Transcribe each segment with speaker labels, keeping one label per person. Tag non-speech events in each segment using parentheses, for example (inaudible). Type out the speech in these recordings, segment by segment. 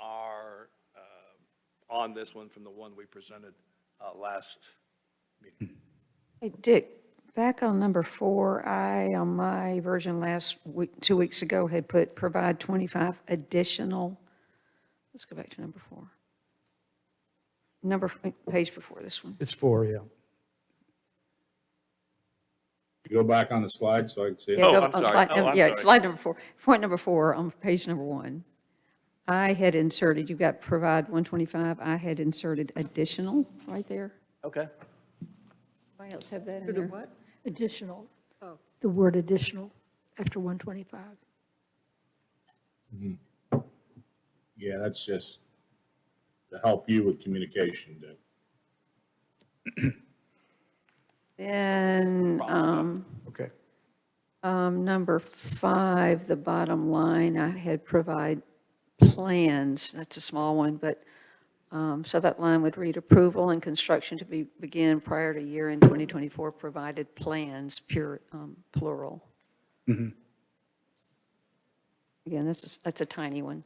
Speaker 1: uh, on this one from the one we presented uh, last meeting.
Speaker 2: Hey, Dick, back on number four, I, on my version last week, two weeks ago, had put provide 25 additional, let's go back to number four. Number, page before this one.
Speaker 3: It's four, yeah.
Speaker 4: You Go back on the slide so I can see. it.
Speaker 2: Yeah,
Speaker 1: Oh,
Speaker 2: go
Speaker 1: I'm sorry.
Speaker 2: on slide
Speaker 1: Oh,
Speaker 2: num-
Speaker 1: I'm
Speaker 2: Yeah,
Speaker 1: sorry.
Speaker 2: slide number four, point number four on page number one. I had inserted, you got provide 125, I had inserted additional right there.
Speaker 1: Okay.
Speaker 2: Anybody else have that in
Speaker 5: To the
Speaker 2: there?
Speaker 5: what?
Speaker 6: Additional,
Speaker 5: Oh.
Speaker 6: the word additional after 125.
Speaker 4: Yeah, that's just to help you with communication, Dick.
Speaker 2: Then, um,
Speaker 3: Okay.
Speaker 2: um, number five, the bottom line, I had provide plans, that's a small one, but, um, so that line would read approval and construction to be, begin prior to year end 2024, provided plans, pure, um, plural. Again, that's, a- that's a tiny one.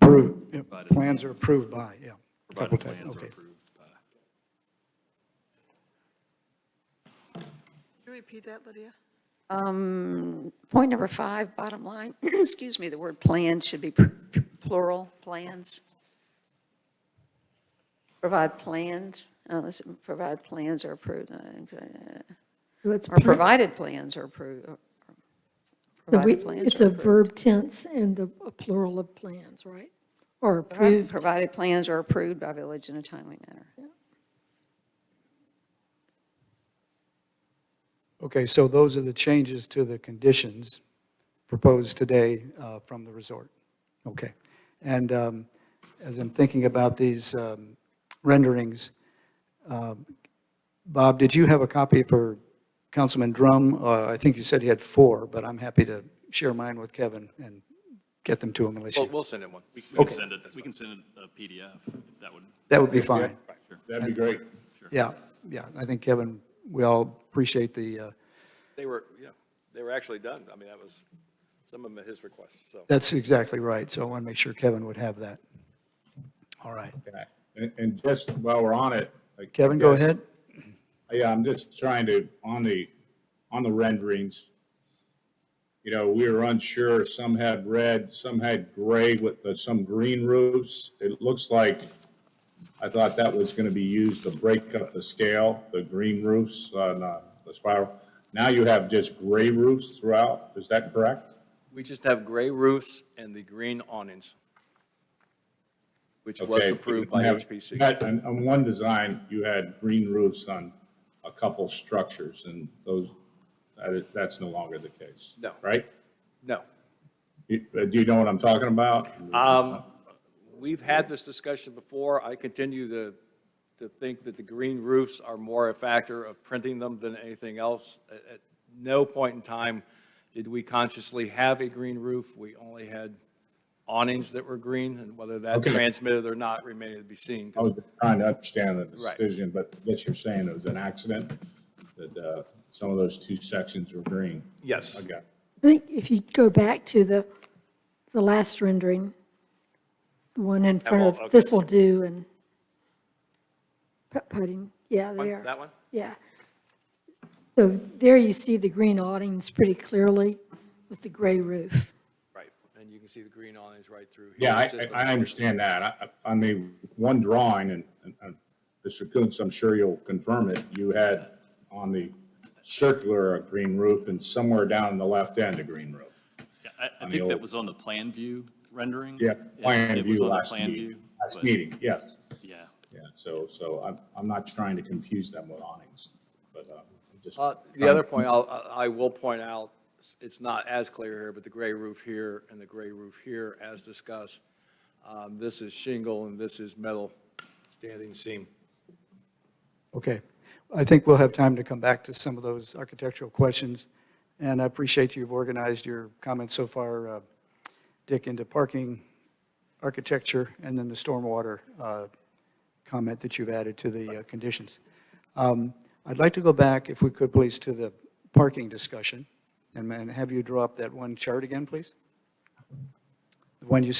Speaker 3: Approved, yeah, plans are approved by, yeah. Couple times, okay.
Speaker 5: Can you repeat that, Lydia?
Speaker 2: Um, Point number five, bottom line, (clears throat) excuse me, the word plan should be pr- plural, plans. Provide plans, unless, provide plans are approved, uh,
Speaker 6: So it's,
Speaker 2: or provided plans are approved.
Speaker 6: the we-
Speaker 2: Provided plans
Speaker 6: it's
Speaker 2: are
Speaker 6: a
Speaker 2: approved.
Speaker 6: verb tense and the a plural of plans, right? Or
Speaker 2: Provi-
Speaker 6: approved.
Speaker 2: Provided plans are approved by village in a timely manner.
Speaker 3: Okay, so those are the changes to the conditions proposed today uh, from the resort. Okay. And um, as I'm thinking about these um, renderings, um, Bob, did you have a copy for Councilman Drum? Uh, I think you said he had four, but I'm happy to share mine with Kevin and get them to him unless
Speaker 1: Well,
Speaker 3: you,
Speaker 1: we'll send it one. We can-
Speaker 7: We can send it, we can send it a PDF, if that would,
Speaker 3: that would be fine.
Speaker 4: That'd be great.
Speaker 3: Yeah, yeah, I think Kevin, we all appreciate the, uh,
Speaker 1: They were, yeah, they were actually done. I mean, that was some of them at his request, so.
Speaker 3: that's exactly right, so I want to make sure Kevin would have that. All right,
Speaker 4: Okay. And, and just while we're on it. I
Speaker 3: Kevin, go
Speaker 4: guess-
Speaker 3: ahead.
Speaker 4: Yeah, I'm just trying to, on the, on the renderings, you know, we were unsure, some had red, some had gray with the- some green roofs. It looks like, I thought that was gonna be used to break up the scale, the green roofs, uh, not the spiral. Now you have just gray roofs throughout, is that correct?
Speaker 1: We just have gray roofs and the green awnings, which was
Speaker 4: Okay,
Speaker 1: approved by
Speaker 4: you have- you
Speaker 1: HPC.
Speaker 4: had- On, on one design, you had green roofs on a couple structures, and those, that is- that's no longer the case.
Speaker 1: No.
Speaker 4: Right?
Speaker 1: No.
Speaker 4: You- uh, Do you know what I'm talking about?
Speaker 1: Um, We've had this discussion before. I continue to, to think that the green roofs are more a factor of printing them than anything else. At, at no point in time did we consciously have a green roof. We only had awnings that were green, and whether that
Speaker 4: Okay. Oh,
Speaker 1: transmitted or not remained to be seen.
Speaker 4: I was trying to understand the
Speaker 1: Right.
Speaker 4: decision, but what you're saying, it was an accident, that uh, some of those two sections were green.
Speaker 1: Yes.
Speaker 4: I got it.
Speaker 6: I think if you go back to the, the last rendering, the one in
Speaker 1: well,
Speaker 6: front
Speaker 1: okay.
Speaker 6: of this'll do and putt putting, yeah,
Speaker 1: One-
Speaker 6: there.
Speaker 1: That one?
Speaker 6: Yeah. So there you see the green awnings pretty clearly with the gray roof.
Speaker 1: Right. And you can see the green awnings right through. here.
Speaker 4: Yeah, I,
Speaker 1: It's just a-
Speaker 4: I I understand that. I- I, I mean, one drawing, and, and- and Mr. Coons, I'm sure you'll confirm it, you had on the circular a green roof and somewhere down in the left end a green roof.
Speaker 7: yeah, I, I
Speaker 4: the
Speaker 7: think that
Speaker 4: old-
Speaker 7: was on the plan view rendering.
Speaker 4: Yeah,
Speaker 7: It-
Speaker 4: plan
Speaker 7: it was
Speaker 4: view
Speaker 7: on the
Speaker 4: last
Speaker 7: plan
Speaker 4: meeting.
Speaker 7: view,
Speaker 4: Last
Speaker 7: but-
Speaker 4: meeting, yes.
Speaker 7: Yeah,
Speaker 4: Yeah, so, so I'm, I'm not trying to confuse them with awnings, but uh, I'm just.
Speaker 1: Uh, The
Speaker 4: trying-
Speaker 1: other point I'll, I I will point out, it's not as clear here, but the gray roof here and the gray roof here, as discussed, um, this is shingle and this is metal standing seam.
Speaker 3: Okay. I think we'll have time to come back to some of those architectural questions, and I appreciate you've organized your comments so far, uh, Dick, into parking, architecture, and then the stormwater uh, comment that you've added to the uh, conditions. Um, I'd like to go back, if we could, please, to the parking discussion, and and have you draw up that one chart again, please? The one you